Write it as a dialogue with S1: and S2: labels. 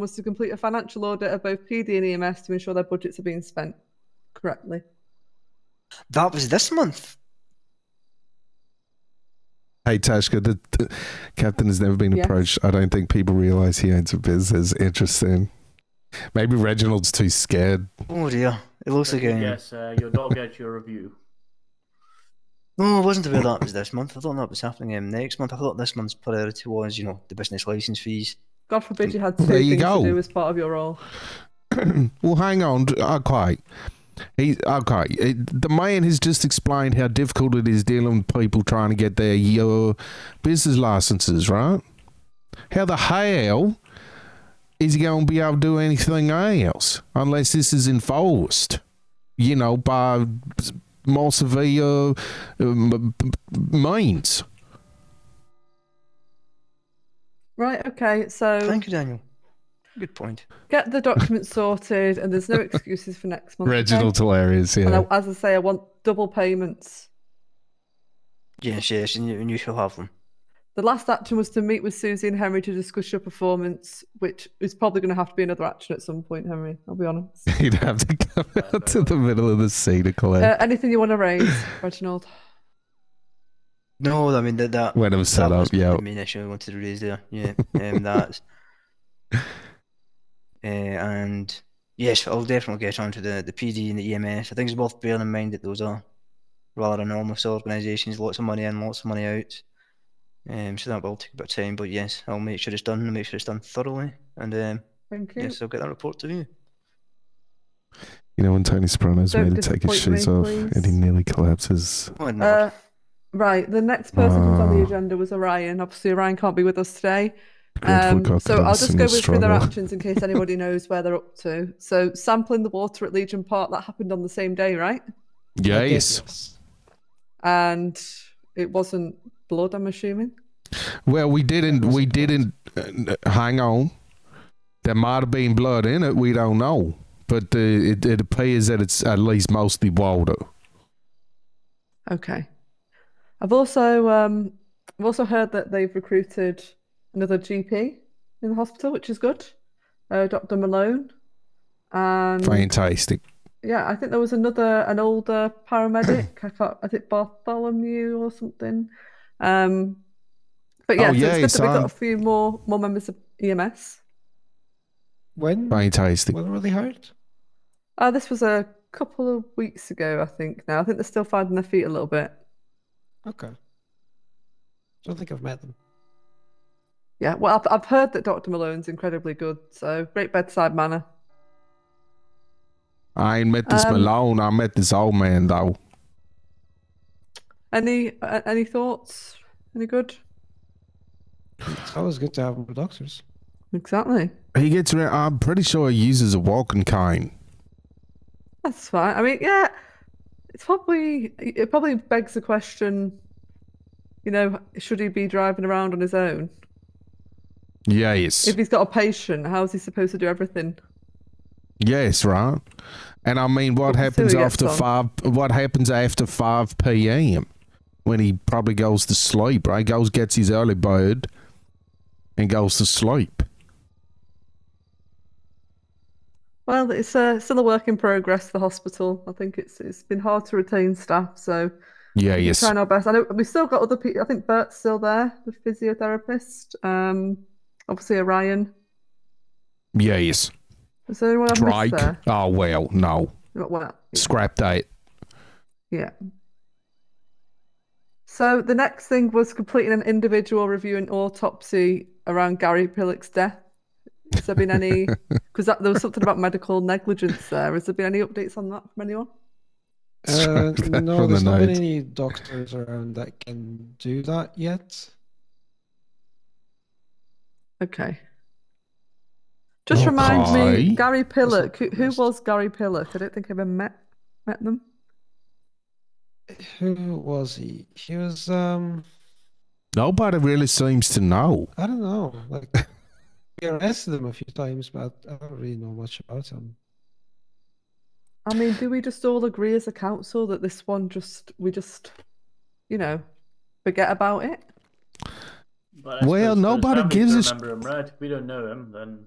S1: was to complete a financial audit of both PD and EMS to ensure their budgets are being spent correctly.
S2: That was this month.
S3: Hey Tashka, the, the captain has never been
S1: Yes.
S3: approached. I don't think people realize he owns a business. Interesting. Maybe Reginald's too scared.
S2: Oh dear. It looks like um, a.
S4: Yes, uh, you'll not get your review.
S2: No, I wasn't aware that was this month. I thought that was happening um, next month. I thought this month's priority was, you know, the business license fees.
S1: God forbid you had two
S3: There you
S1: things
S3: go.
S1: to do as part of your role.
S3: well, hang on. Okay. He, okay. It- the man has just explained how difficult it is dealing with people trying to get their your business licenses, right? How the hell is he going to be able to do anything else unless this is enforced, you know, by more severe um, means?
S1: Right, okay, so
S2: Thank you, Daniel. Good point.
S1: get the documents sorted and there's no excuses for next month. okay?
S3: Reginald's hilarious, yeah.
S1: And I, as I say, I want double payments.
S2: Yes, yes, and you, and you shall have them.
S1: The last action was to meet with Susie and Henry to discuss your performance, which is probably going to have to be another action at some point, Henry. I'll be honest.
S3: He'd have to come out to the middle of the sea to collect.
S1: Uh, anything you want to raise, Reginald?
S2: No, I mean that that
S3: When it was
S2: that
S3: set up,
S2: was
S3: yeah.
S2: The main issue I wanted to raise there, yeah. Um, that's uh, and yes, I'll definitely get onto the the PD and the EMS. I think it's worth bearing in mind that those are rather enormous organisations, lots of money in, lots of money out. Um, so that will take a bit of time, but yes, I'll make sure it's done and make sure it's done thoroughly. And um,
S1: Thank you.
S2: yes, I'll get that report to you.
S3: You know when Tony Soprano's
S1: Don't
S3: made to take his
S1: disappoint
S3: shoes
S1: me,
S3: off
S1: please.
S3: and he nearly collapses.
S2: Oh, I'd never-
S1: Uh, right, the next person who's on the
S3: Ah.
S1: agenda was Orion. Obviously, Orion can't be with us today.
S3: Dreadful
S1: Um, so I'll
S3: confidence
S1: just
S3: in
S1: go
S3: his
S1: with, through their
S3: struggle.
S1: actions in case anybody knows where they're up to. So sampling the water at Legion Park, that happened on the same day, right?
S3: Yes.
S1: And it wasn't blood, I'm assuming.
S3: Well, we didn't. We didn't. Uh, hang on. There might have been blood in it. We don't know, but uh, it, it appears that it's at least mostly water.
S1: Okay. I've also um, I've also heard that they've recruited another GP in the hospital, which is good. Uh, Dr. Malone. And
S3: Fantastic.
S1: yeah, I think there was another an older paramedic. I can't. I think Bartholomew or something. Um, but
S3: Oh,
S1: yeah,
S3: yeah,
S1: so
S3: he
S1: it's good that we've
S3: signed.
S1: got a few more more members of E EMS.
S5: When?
S3: Fantastic.
S5: When were they hired?
S1: Uh, this was a couple of weeks ago, I think. Now I think they're still finding their feet a little bit.
S5: Okay. Don't think I've met them.
S1: Yeah, well, I've, I've heard that Dr. Malone's incredibly good, so great bedside manner.
S3: I ain't met this
S1: Um,
S3: Malone. I met this old man though.
S1: Any uh, any thoughts? Any good?
S5: It's always good to have more doctors.
S1: Exactly.
S3: He gets. Re- I'm pretty sure he uses a walking cane.
S1: That's fine. I mean, yeah, it's probably it probably begs the question, you know, should he be driving around on his own?
S3: Yes.
S1: If he's got a patient, how's he supposed to do everything?
S3: Yes, right. And I mean, what
S1: But we
S3: happens
S1: still get
S3: after five? What happens after five p.m. when he probably goes to sleep? Right, goes gets his early bird and goes to sleep.
S1: Well, it's uh, still a work in progress. The hospital. I think it's it's been hard to retain staff, so
S3: Yeah,
S1: we're
S3: Uh, yes.
S1: trying our best. I know we've still got other people. I think Bert's still there, the physiotherapist. Um, obviously Orion.
S3: Yes.
S1: Is there anyone I've missed
S3: Drake.
S1: there?
S3: Oh well, no.
S1: Well,
S3: Scrap that.
S1: Yeah. So the next thing was completing an individual review and autopsy around Gary Pillock's death. Has there been any? Because there was something about medical negligence there. Has there been any updates on that from anyone?
S5: Uh,
S3: Scrap that
S5: no,
S3: from
S5: there's
S3: the
S5: not been
S3: notes.
S5: any doctors around that can do that yet.
S1: Okay. Just remind
S3: Okay.
S1: me, Gary Pillock. Who, who
S5: List.
S1: was Gary Pillock? I don't think I ever met met them.
S5: Who was he? He was um
S3: Nobody really seems to know.
S5: I don't know. Like we arrested him a few times, but I don't really know much about him.
S1: I mean, do we just all agree as a council that this one just we just, you know, forget about it?
S4: But I
S3: Well,
S4: suppose for his
S3: nobody
S4: family to
S3: gives a sh-
S4: remember him, right? If we don't know him, then